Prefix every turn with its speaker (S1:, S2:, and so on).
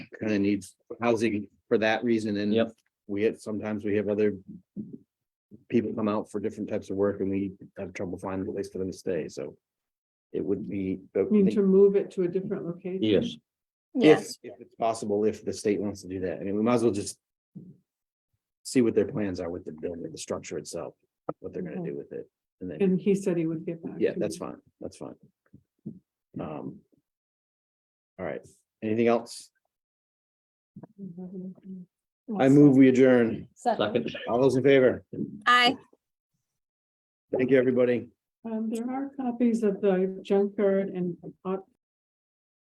S1: kind of needs housing for that reason and.
S2: Yep.
S1: We had, sometimes we have other. People come out for different types of work and we have trouble finding a place for them to stay, so. It would be. but
S3: mean to move it to a different location?
S2: Yes,
S1: If, if it's possible, if the state wants to do that, I mean, we might as well just. See what their plans are with the building, the structure itself, what they're gonna do with it, and then,
S3: And he said he would get back.
S1: yeah,
S3: to
S1: that's
S3: me.
S1: fine, that's fine. Um. All right, anything else? I move we adjourn.
S2: second.
S1: All those in favor?
S4: Aye.
S1: Thank you, everybody.
S3: Um, there are copies of the junkyard and op-